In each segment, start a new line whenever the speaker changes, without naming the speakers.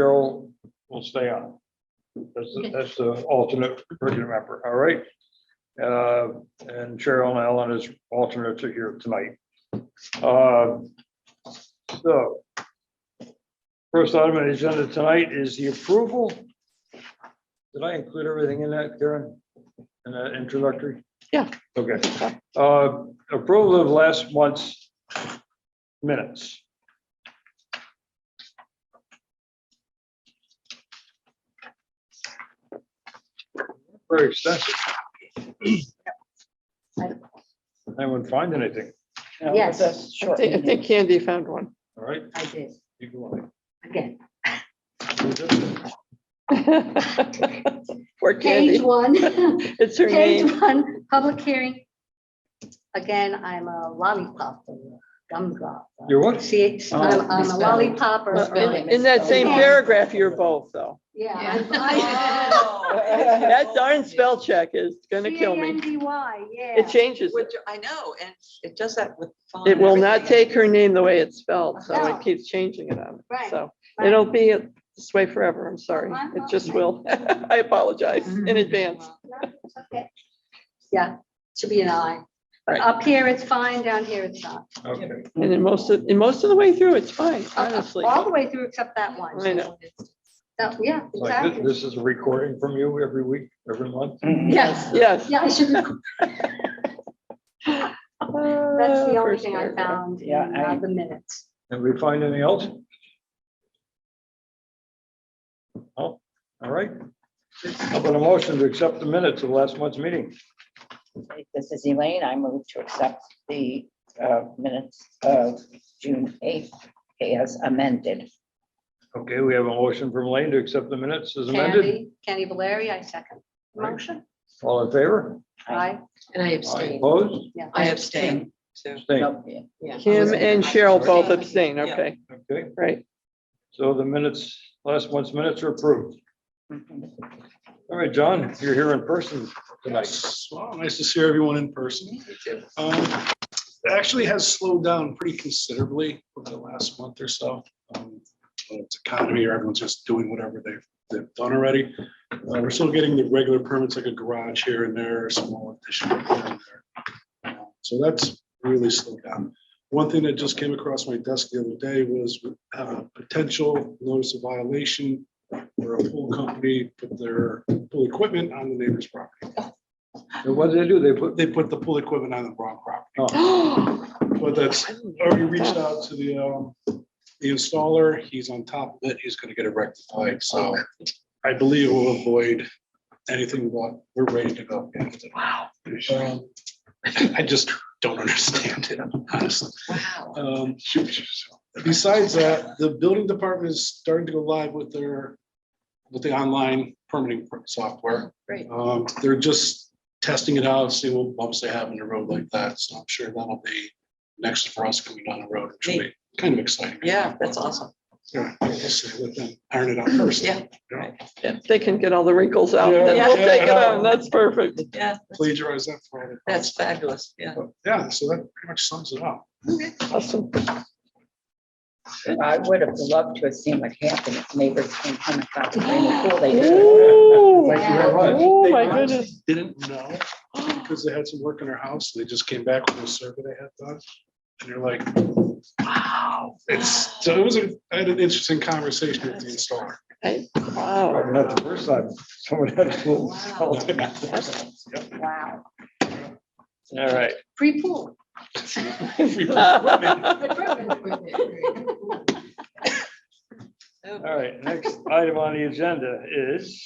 Cheryl will stay on. That's, the- that's the alternate regular member, all right? Uh, and Cheryl and Alan is alternates are here tonight. Uh, So. First item on the agenda tonight is the approval. Did I include everything in that, Karen? In that introductory?
Yeah.
Okay. Uh, approval of last month's minutes. Very extensive. I wouldn't find anything,
Yes,
I
sure.
think, I think Candy found one.
all right?
I did,
you go
again.
on.
Poor
Page
Candy.
one,
It's her name.
page one, public hearing. Again, I'm a lollipop, gumdrop.
You're what? Oh.
See, I'm, I'm a lollipop or.
In that same paragraph, you're both, though.
Yeah. I'm- I-
That darn spell check is gonna kill me.
C-A-N-D-Y,
It
yeah.
changes. it.
Which I know, and it does that with. font
It
and
will not
everything.
take her name the way it's spelled, so
No.
it keeps changing it on.
Right,
So
right.
it'll be this way forever. I'm sorry.
I'm
It just
okay.
will. I apologize
Mm-hmm.
in advance.
No, it's okay. Yeah, should be an I. But
Right.
up here it's fine, down here it's not.
Okay,
And in most of, in most of the way through, it's fine, honestly.
All the way through except that one.
I know.
That- yeah,
like thi-
exactly.
this is a recording from you every week, every month?
Yes,
Yes.
yeah, I should, that's the only
First
thing I
paragraph.
found in
Yeah, I-
uh, the minutes.
Did we find anything else? Oh, all right. How about a motion to accept the minutes of last month's meeting?
This is Elaine. I move to accept the uh, minutes of June eighth as amended.
Okay, we have a motion from Lane to accept the minutes as amended.
Candy, Candy Valeri, I second. Motion,
All in favor?
aye,
And I
Aye.
abstain.
Opposed?
yeah.
I abstain. too.
Abstained.
Nope, yeah.
Yeah.
Kim and Cheryl both abstain.
Yeah.
Okay,
Okay,
right.
so the minutes, last month's minutes are approved.
Mhm.
All right, John, you're here in person tonight.
Well, nice to see everyone in person. Um, It actually has slowed down pretty considerably over the last month or so. Um, It's economy, or everyone's just doing whatever they've, they've done already. Uh, We're still getting the regular permits like a garage here and there, a small addition. here and there. Um, So that's really slowed down. One thing that just came across my desk the other day was uh, potential notice of violation where a pool company put their pool equipment on the neighbor's property
And what did they do? They put,
they put the pool equipment on the wrong property.
Oh,
But that's, already reached out to the, um, the installer, he's on top of it, he's gonna get it rectified, so I believe we'll avoid anything but, we're ready to go. Wow. I just don't understand it, honestly.
Wow.
Um, Besides that, the building department is starting to go live with their, with the online permitting software.
Great.
Um, They're just testing it out, seeing what bumps they have in the road like that. So I'm sure that'll be next for us coming down the road, which will be kind of exciting.
Yeah, that's awesome.
Yeah, we'll see, let them Iron it out first.
Yeah.
If they can get all the wrinkles out, then
Yeah.
we'll take it out. That's perfect.
Yeah, that's-
Plagiarize that for all the.
that's fabulous. Yeah.
But, Yeah, so that pretty much sums it up.
Awesome.
I would have loved to have seen what happened if neighbors came home and thought they were cool. They did.
Ooh.
Thank you very much.
Oh,
They
my
honestly
goodness.
Didn't know. because they had some work in their house, and they just came back with a survey they had done. And you're like, wow, it's, so it was, a I had an interesting conversation with the installer.
Hey, Wow.
probably not the first time someone had a pool.
Wow.
Wow,
All right.
free pool.
All right, next item on the agenda is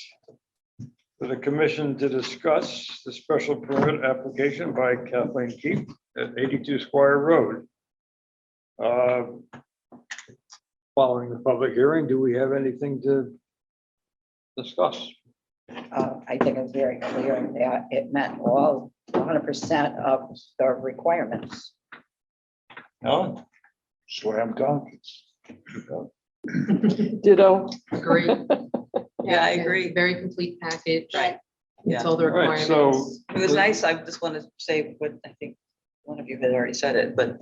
for the commission to discuss the special permit application by Kathleen Keefe at eighty-two Squire Road. Uh, Following the public hearing, do we have anything to discuss?
Uh, I think it's very clear that it met all hundred percent of the requirements.
No? Swear I'm talking.
Ditto.
Agree. Yeah, I agree.
Very complete package.
Right.
It's all the
All right,
requirements.
so
It was nice. I just want to say what I think one of you had already said it, but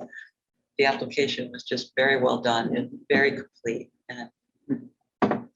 the application was just very well done and very complete. And